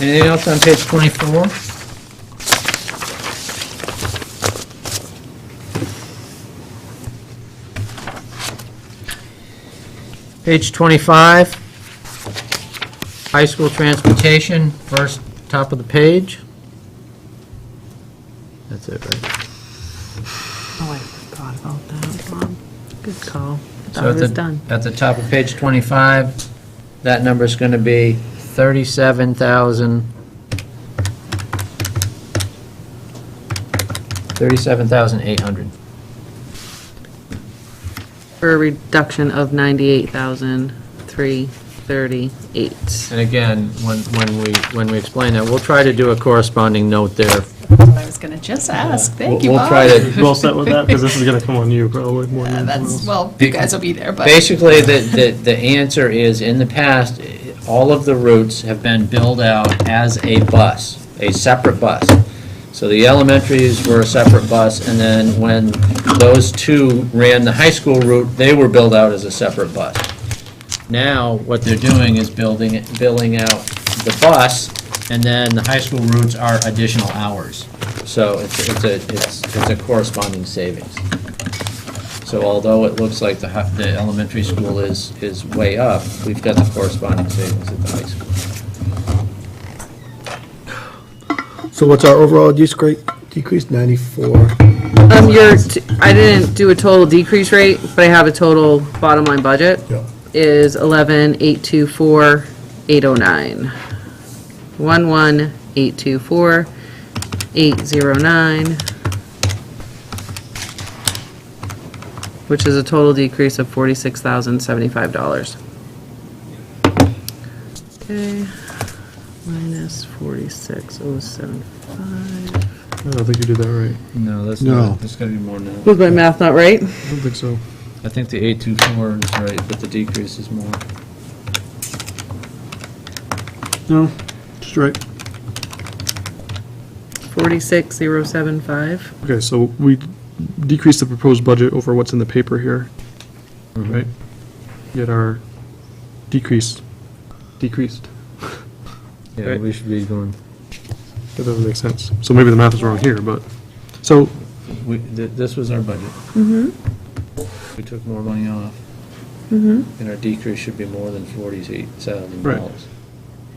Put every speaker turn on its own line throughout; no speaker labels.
Anything else on page 24? Page 25, high school transportation, first top of the page. That's it, right?
Oh, I forgot about that, Bob. Good call. I
So at
thought it was
the-
done.
At the top of page 25, that number's going to be 37,000, 37,800.
For a reduction of ninety-eight thousand, three thirty-eight.
And again, when, when we, when we explain that, we'll try to do a corresponding note there.
I was gonna just ask, thank
We'll-
you,
we'll
Bob.
try to-
Well set with that, because this is gonna come on you probably more than
Uh,
anyone
That's,
else.
well, you guys will be there, but.
Basically, the, the, the answer is, in the past, all of the routes have been billed out as a bus, a separate bus. So the elementaries were a separate bus, and then when those two ran the high school route, they were billed out as a separate bus. Now, what they're doing is building, it- billing out the bus, and then the high school routes are additional hours. So it's, it's a, it's it's a corresponding savings. So although it looks like the, hi- the elementary school is, is way up, we've got the corresponding savings at the high school.
So what's our overall decrease, decrease 94?
Um, your, t- I didn't do a total decrease rate, but I have a total bottom line budget.
Yeah.
Is eleven, eight, two, four, eight, oh, nine. One, one, eight, two, four, eight, zero, nine. Which is a total decrease of forty-six thousand, seventy-five dollars. Okay, minus forty-six, oh, seven, five.
I don't think you did that right.
No, that's
not- No.
that's gotta be more than
Was my math not right?
I don't think so.
I think the eight two four is right, but the decrease is more.
No, just right.
46075.
Okay, so we decreased the proposed budget over what's in the paper here,
Mm-hmm.
right? Yet our decrease, decreased.
Yeah, we should be going.
That doesn't make sense. So maybe the math is wrong here, but, so,
We, th- this was our budget. Mm-hmm. We took more money off. Mm-hmm. And our decrease should be more than forty-eight thousand
Right.
dollars.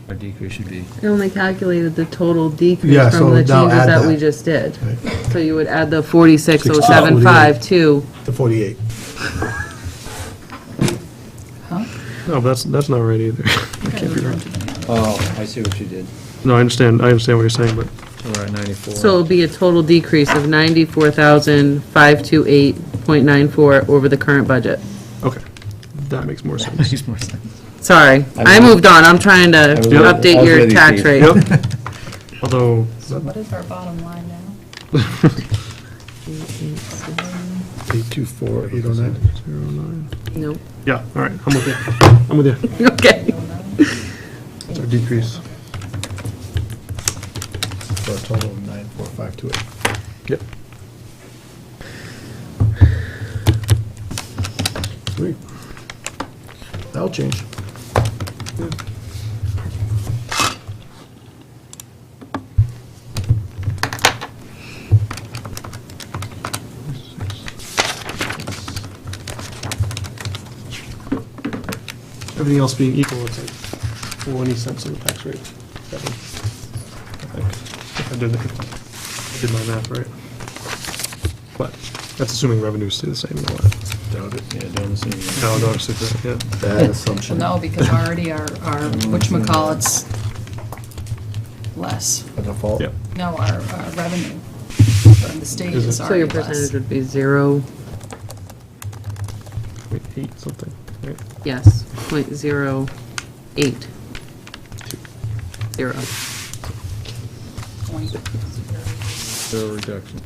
Our decrease should be.
I only calculated the total
Yeah,
decrease
so
from the changes
now add
that we
that.
just did.
Right. oh,
So you would add the 46075 to,
The 48.
no, that's, that's not right either. That can't be right.
Oh, I see what you did.
No, I understand, I understand what you're saying, but
So we're at ninety-four.
so it'll be a total decrease of 94,528.94 over the current budget.
Okay, that makes more sense.
Makes more sense.
Sorry, I moved on, I'm trying to
was- I
update
was
your
ready,
tax
Steve.
rate.
Yep. Although,
So what is our bottom line now?
824, 809.
Nope,
yeah, all right, I'm with you. I'm with you.
okay.
It's our decrease. For a total of 94528.
Yep.
Sweet. That'll change.
Everything else being equal, it's like 20 cents of the tax rate. That one, I think. If I did, I did my math right. But that's assuming revenues stay the same and all that.
Doubt it.
Yeah, don't assume that.
No, no, it's just, yeah.
Bad assumption.
No, because already our, our, whatchamacallit's less.
A default.
Yep.
No, our, our revenue from the state
Is it-
is
So
already
your
less.
percentage would be zero,
Wait, Eight something, right?
yes, point zero eight. Zero.
Point
Zero reduction.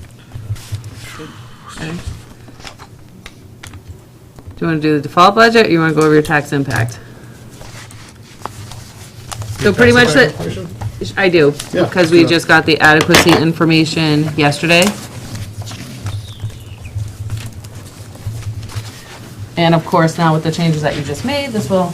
Okay. Do you want to do the default budget, or you want to go over your tax impact? So pretty much that, I do,
Yeah,
because we
sure.
just got the adequacy information yesterday. And of course, now with the changes that you just made, this will